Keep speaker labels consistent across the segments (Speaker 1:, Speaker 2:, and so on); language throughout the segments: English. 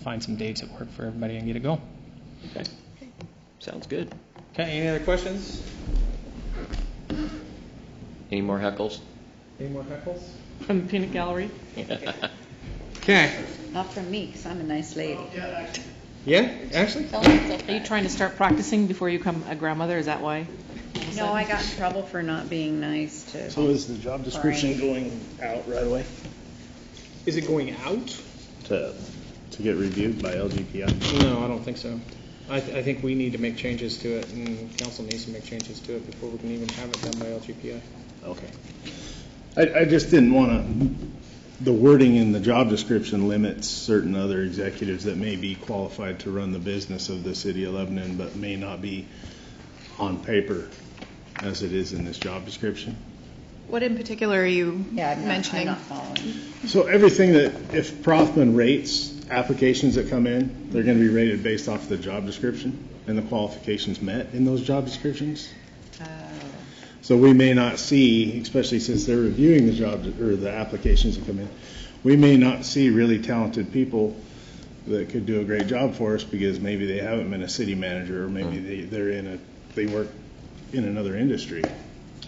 Speaker 1: find some dates that work for everybody and get it going.
Speaker 2: Okay. Sounds good.
Speaker 1: Okay, any other questions?
Speaker 2: Any more heckles?
Speaker 1: Any more heckles?
Speaker 3: From the peanut gallery?
Speaker 1: Okay,
Speaker 4: Not from me, 'cause I'm a nice lady.
Speaker 1: yeah, actually?
Speaker 3: Are you trying to start practicing before you become a grandmother? Is that why?
Speaker 4: No, I got in trouble for not being nice
Speaker 5: So
Speaker 4: to,
Speaker 5: is the job description going out right away?
Speaker 1: Is it going out?
Speaker 5: To, to get reviewed by LGPI?
Speaker 1: No, I don't think so. I, th- I think we need to make changes to it, and council needs to make changes to it before we can even have it done by LGPI.
Speaker 5: Okay. I, I just didn't want to, the wording in the job description limits certain other executives that may be qualified to run the business of the city of Lebanon, but may not be on paper as it is in this job description.
Speaker 6: What in particular are you
Speaker 4: yeah, I'm not, I'm
Speaker 6: mentioning?
Speaker 4: not following.
Speaker 5: So everything that, if Prothman rates applications that come in, they're going to be rated based off the job description and the qualifications met in those job descriptions? So we may not see, especially since they're reviewing the job, or the applications that come in, we may not see really talented people that could do a great job for us because maybe they haven't been a city manager, or maybe they, they're in a, they work in another industry.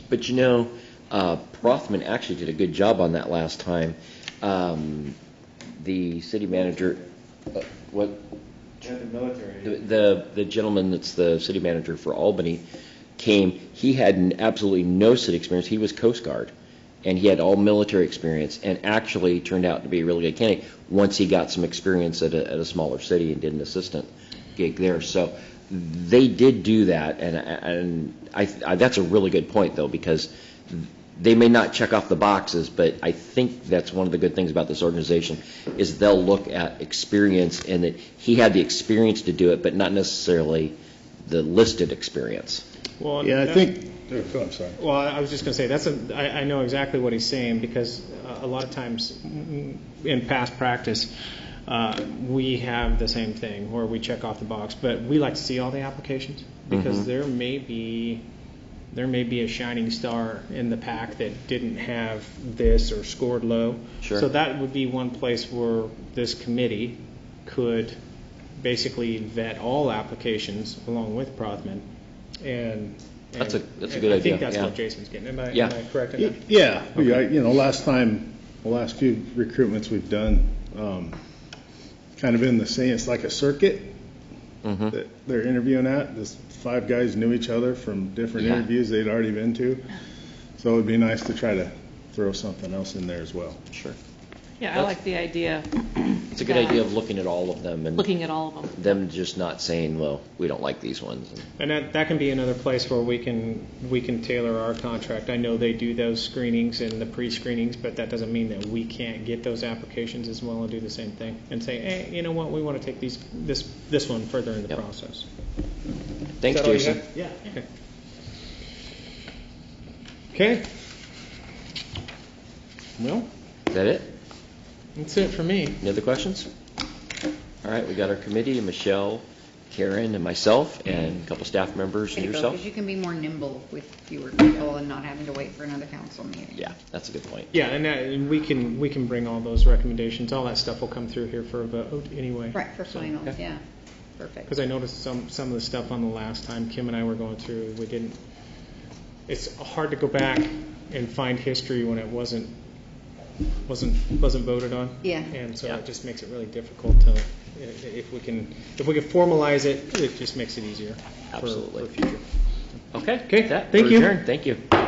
Speaker 2: But you know, uh, Prothman actually did a good job on that last time. Um, The city manager, uh, what? the military. The, the gentleman that's the city manager for Albany came, he had n- absolutely no city experience. He was Coast Guard, and he had all military experience, and actually turned out to be a really good candidate, once he got some experience at a, at a smaller city and did an assistant gig there. So they did do that, and, and I, I- that's a really good point, though, because they may not check off the boxes, but I think that's one of the good things about this organization, is they'll look at experience, and that he had the experience to do it, but not necessarily the listed experience.
Speaker 1: Well,
Speaker 5: Yeah, I think, oh, I'm sorry.
Speaker 1: Well, I I was just going to say, that's a, I, I know exactly what he's saying, because uh, a lot of times, mm, in past practice, uh, we have the same thing, where we check off the box, but we like to see all the applications, because there may be, there may be a shining star in the pack that didn't have this or scored low.
Speaker 2: Sure.
Speaker 1: So that would be one place where this committee could basically vet all applications along with Prothman, and.
Speaker 2: That's a- that's a
Speaker 1: and
Speaker 2: good
Speaker 1: I think
Speaker 2: idea,
Speaker 1: that's
Speaker 2: yeah.
Speaker 1: what Jason's getting, am I, am
Speaker 2: Yeah.
Speaker 1: I correct in
Speaker 5: Y-
Speaker 1: that?
Speaker 5: Yeah, we- I- you know, last time, the last few recruitments we've done, um, kind of been the same, it's like a circuit that they're interviewing at, this five guys knew each other from different
Speaker 2: Yeah.
Speaker 5: interviews they'd already been to, so it'd be nice to try to throw something else in there as well.
Speaker 2: Sure.
Speaker 3: Yeah, I like the idea,
Speaker 2: It's a good idea of looking at all of them, and
Speaker 3: looking at all of them.
Speaker 2: them just not saying, well, we don't like these ones. and-
Speaker 1: And that, that can be another place where we can, we can tailor our contract. I know they do those screenings and the pre-screenings, but that doesn't mean that we can't get those applications as well and do the same thing. And say, hey, you know what, we want to take these, this, this one further in the
Speaker 2: Yep.
Speaker 1: process.
Speaker 2: Thanks,
Speaker 1: Is that all you
Speaker 2: Jason.
Speaker 1: have? Yeah. okay. Okay,
Speaker 5: Well,
Speaker 2: Is that it?
Speaker 1: that's it for me.
Speaker 2: Any other questions? All right, we got our committee, Michelle, Karen, and myself, and a couple staff members, and yourself.
Speaker 4: Because you can be more nimble with fewer people and not having to wait for another council meeting.
Speaker 2: Yeah, that's a good point.
Speaker 1: Yeah, and that, and we can, we can bring all those recommendations, all that stuff will come through here for a vote anyway.
Speaker 4: Right, for finals,
Speaker 2: okay.
Speaker 4: yeah, perfect.
Speaker 1: Because I noticed some, some of the stuff on the last time Kim and I were going through, we didn't, it's hard to go back and find history when it wasn't, wasn't, wasn't voted on.
Speaker 4: Yeah.
Speaker 1: And so
Speaker 2: Yeah.
Speaker 1: it just makes it really difficult to, i- if we can, if we can formalize it, it just makes it easier. for-
Speaker 2: Absolutely.
Speaker 1: For future.
Speaker 2: Okay.
Speaker 1: Okay,
Speaker 2: that-
Speaker 1: thank
Speaker 2: we're
Speaker 1: you.
Speaker 2: adjourned. Thank you.